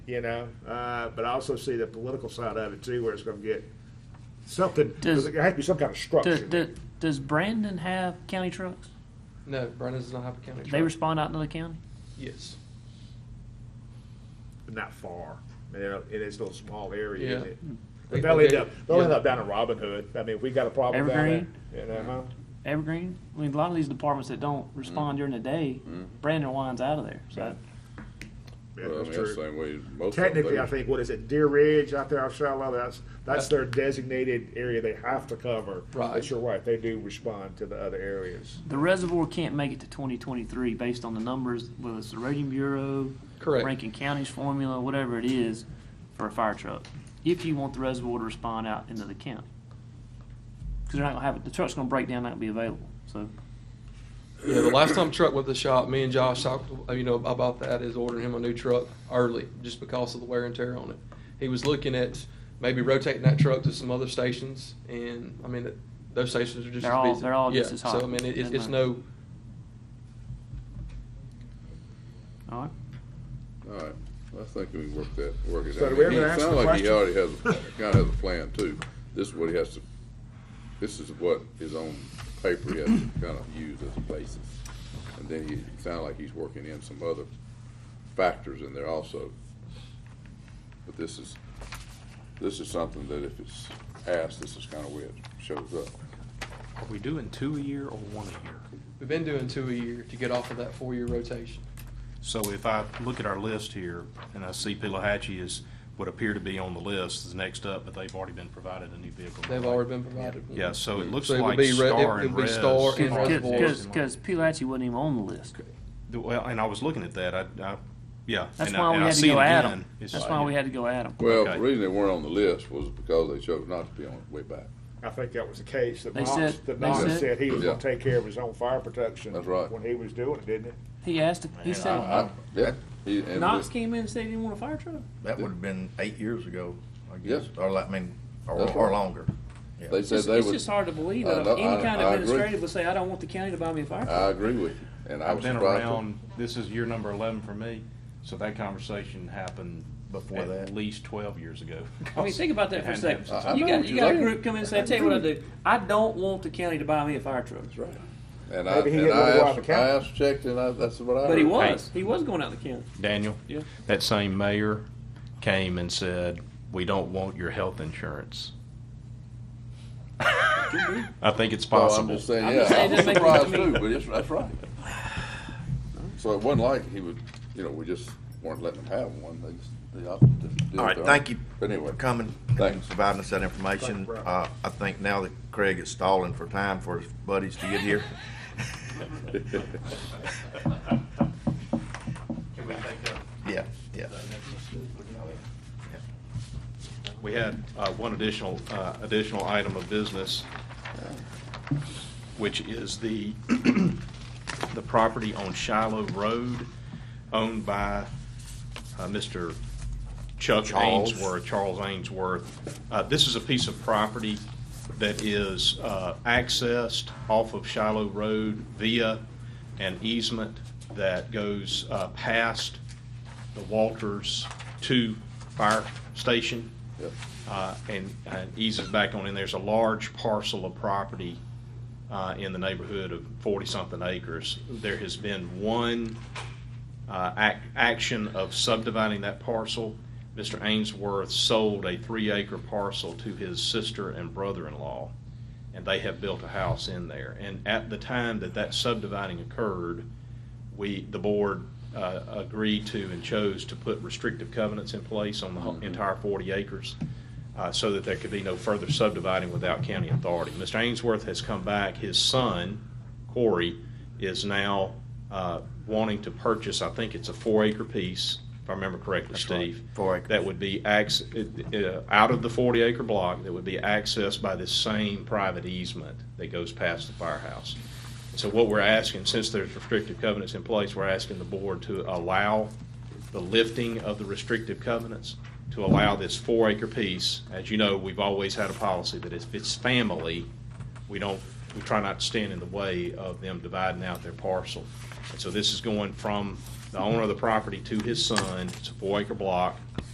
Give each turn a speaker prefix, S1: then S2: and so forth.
S1: you know. Uh, but I also see the political side of it too, where it's going to get something.
S2: Does-
S1: Does, there has to be some kind of structure.
S2: Does, does, does Brandon have county trucks?
S3: No, Brandon does not have a county
S2: They
S3: truck.
S2: respond out to the county?
S3: Yes.
S1: not far. You know, it is a little small area,
S3: Yeah.
S1: isn't it? But
S3: They-
S1: they'll end
S3: they-
S1: up, they'll end
S3: yeah.
S1: up down in Robin Hood. I mean, if we got a problem down there.
S2: Evergreen?
S1: You know, huh?
S2: Evergreen? I mean, a lot of these departments that don't respond during the day, Brandon winds out of there, so.
S1: Yeah,
S4: Well, I
S1: that's
S4: mean, that's
S1: true.
S4: the same way most of them
S1: Technically,
S4: do.
S1: I think, what is it, Deer Ridge out there, off Shiloh, that's, that's
S3: That's-
S1: their designated area they have to cover.
S3: Right.
S1: But you're right, they do respond to the other areas.
S2: The reservoir can't make it to twenty twenty-three based on the numbers, whether it's the rating bureau.
S3: Correct.
S2: Rankin County's formula, whatever it is, for a fire truck, if you want the reservoir to respond out into the county. Cause they're not gonna have, it. the truck's gonna break down, not be available, so.
S3: Yeah, the last time truck went to the shop, me and Josh talked, uh, you know, about that is ordering him a new truck early, just because of the wear and tear on it. He was looking at maybe rotating that truck to some other stations, and I mean, those stations are just
S2: They're
S3: as
S2: all-
S3: busy.
S2: they're all
S3: yeah,
S2: just as hot.
S3: So I mean, it, it's,
S2: Never
S3: it's no.
S2: mind. All right.
S4: All right, I think we can work that, work it out.
S1: So do we ever
S4: It
S1: ask
S4: sounds
S1: the
S4: like he
S1: question?
S4: already has, kind of has a plan too. This is what he has to, this is what his own paper he has to kind of use as a basis. And then he, it sounds like he's working in some other factors in there also. But this is, this is something that if it's asked, this is kind of where it shows up.
S5: Are we doing two a year or one a year?
S3: We've been doing two a year to get off of that four-year rotation.
S5: So if I look at our list here, and I see Pilahatchee is, would appear to be on the list, is next up, but they've already been provided a new vehicle.
S3: They've already been provided. one.
S5: Yeah, so it looks
S3: So it would
S5: like
S3: be re-
S5: Star
S3: it would
S5: and
S3: be
S5: Res.
S3: Star and
S5: are-
S3: Reservoir.
S2: Because, because Pilahatchee wasn't even on the list.
S5: Well, and I was looking at that, I, I, yeah.
S2: That's
S5: and I-
S2: why we
S5: and I
S2: had to
S5: see it
S2: go at
S5: again.
S2: them.
S5: It's-
S2: That's why we had to go at them.
S4: Well,
S5: Okay.
S4: the reason they weren't on the list was because they chose not to be on it way back.
S1: I think that was the case that
S2: They
S1: Knox,
S2: said-
S1: that
S2: they
S1: Knox
S2: said-
S1: said he was
S4: Yeah.
S1: gonna take care of his own fire protection.
S4: That's right.
S1: When he was doing it, didn't
S2: He asked, he
S6: Man,
S2: said,
S4: I- Uh, Yeah. he- and
S2: Knox
S4: the-
S2: came in and said he didn't want a fire truck.
S6: That would have been eight years ago, I guess,
S4: Yes.
S6: or like, I mean, or,
S4: That's
S6: or
S4: right.
S6: longer. Yeah.
S4: They said
S2: It's,
S4: they
S2: it's
S4: would.
S2: just hard to believe
S4: I
S2: that
S4: know,
S2: any
S4: I-
S2: kind
S4: I
S2: of
S4: agree.
S2: administrative would say, I don't want the county to buy me a fire truck.
S4: I agree with you, and I
S5: I've
S4: was
S5: been
S4: surprised. too.
S5: around, this is year number eleven for me, so that conversation happened.
S6: Before
S5: At
S6: that.
S5: least twelve years ago.
S2: I mean, think about that for a
S5: It
S2: second.
S5: hadn't happened
S4: I-
S5: since
S4: I
S2: You
S4: know
S2: got,
S4: what
S2: you
S4: you're
S2: got a
S4: saying.
S2: group come in and say, I tell you what I do, I don't want the county to buy me a fire truck.
S4: That's right. And I,
S1: Maybe he
S4: and
S1: didn't
S4: I
S1: wanna go out
S4: asked,
S1: of
S4: I
S1: county.
S4: asked, checked, and I, that's what I heard.
S2: But he was, he was going out the county.
S5: Daniel?
S2: Yeah.
S5: That same mayor came and said, we don't want your health insurance. I think it's
S4: So I'm
S5: possible.
S4: just saying,
S2: I'm
S4: yeah,
S2: just saying
S4: I was
S2: just make-
S4: surprised
S2: I mean-
S4: too, but it's, that's right. So it wasn't like he would, you know, we just weren't letting them have one, they just, they opted to do it.
S6: All right,
S4: their own.
S6: thank you
S4: But anyway,
S6: for coming and
S4: Thanks.
S6: providing us that information.
S1: Thank you, Rob.
S6: Uh, I think now that Craig is stalling for time for his buddies to get here. Yeah, yeah.
S5: We had uh, one additional, uh, additional item of business, which is the, the property on Shiloh Road owned by uh, Mr. Chuck
S6: Charles.
S5: Ainsworth, Charles Ainsworth. Uh, This is a piece of property that is uh, accessed off of Shiloh Road via an easement that goes uh, past the Walters 2 Fire Station
S4: Yep.
S5: uh, and and eases back on in. There's a large parcel of property uh, in the neighborhood of 40-something acres. There has been one uh, ac- action of subdividing that parcel. Mr. Ainsworth sold a three-acre parcel to his sister and brother-in-law, and they have built a house in there. And at the time that that subdividing occurred, we, the board uh, agreed to and chose to put restrictive covenants in place on the
S6: Mm-hmm.
S5: whole- entire 40 acres uh, so that there could be no further subdividing without county authority. Mr. Ainsworth has come back. His son, Corey, is now uh, wanting to purchase, I think it's a four-acre piece, if I remember correctly,
S6: right,
S5: Steve.
S6: four acres.
S5: That would be acc- uh, uh, out of the 40-acre block, that would be accessed by this same private easement that goes past the firehouse. So what we're asking, since there's restrictive covenants in place, we're asking the board to allow the lifting of the restrictive covenants, to allow this four-acre piece. As you know, we've always had a policy that if it's family, we don't, we try not to stand in the way of them dividing out their parcel. And so this is going from the owner of the property to his son. It's a four acre block.